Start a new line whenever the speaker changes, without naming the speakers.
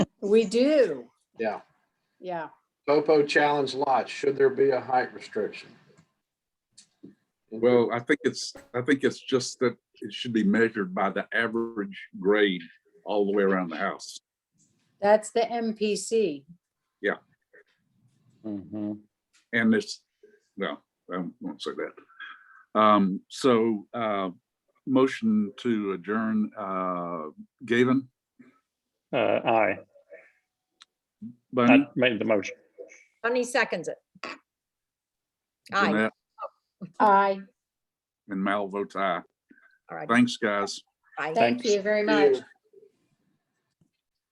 We do.
Yeah.
Yeah.
Topo challenge lot, should there be a height restriction?
Well, I think it's, I think it's just that it should be measured by the average grade all the way around the house.
That's the MPC.
Mhm.
And it's, well, I won't say that. Um, so, uh, motion to adjourn, uh, Gavin,
Uh, aye,
Bunny,
I made the motion.
Bunny seconds it. Aye,
Jeanette,
Aye.
and Mal votes aye.
all right.
Thanks, guys.
Aye.
Thank you very much.
Thank you.